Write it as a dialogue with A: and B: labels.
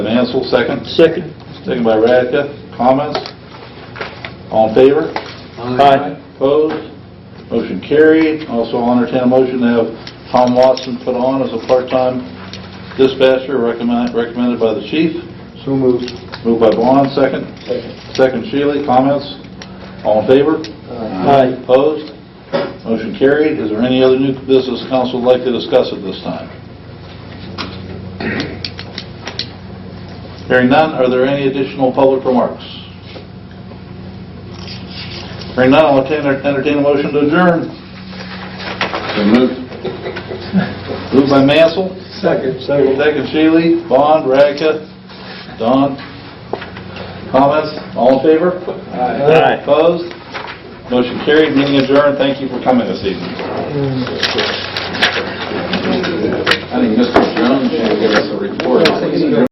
A: Mansell, second.
B: Second.
A: Second by Radka. Comments? All in favor? Opposed? Motion carried. Also, I'll entertain a motion to have Tom Watson put on as a part-time dispatcher recommend- recommended by the chief.
B: So moved.
A: Moved by Vaughn, second.
B: Second.
A: Second, Shealy. Comments? All in favor?
B: Aye.
A: Opposed? Motion carried. Is there any other new business council would like to discuss at this time? Hearing none, are there any additional public remarks? Hearing none, I'll entertain entertain a motion to adjourn. Moved by Mansell,
B: Second.
A: second Shealy, Bond, Radka, Don. Comments? All in favor?
B: Aye.
A: Opposed? Motion carried, meeting adjourned. Thank you for coming this evening. I think Mr. Jones should give us a report.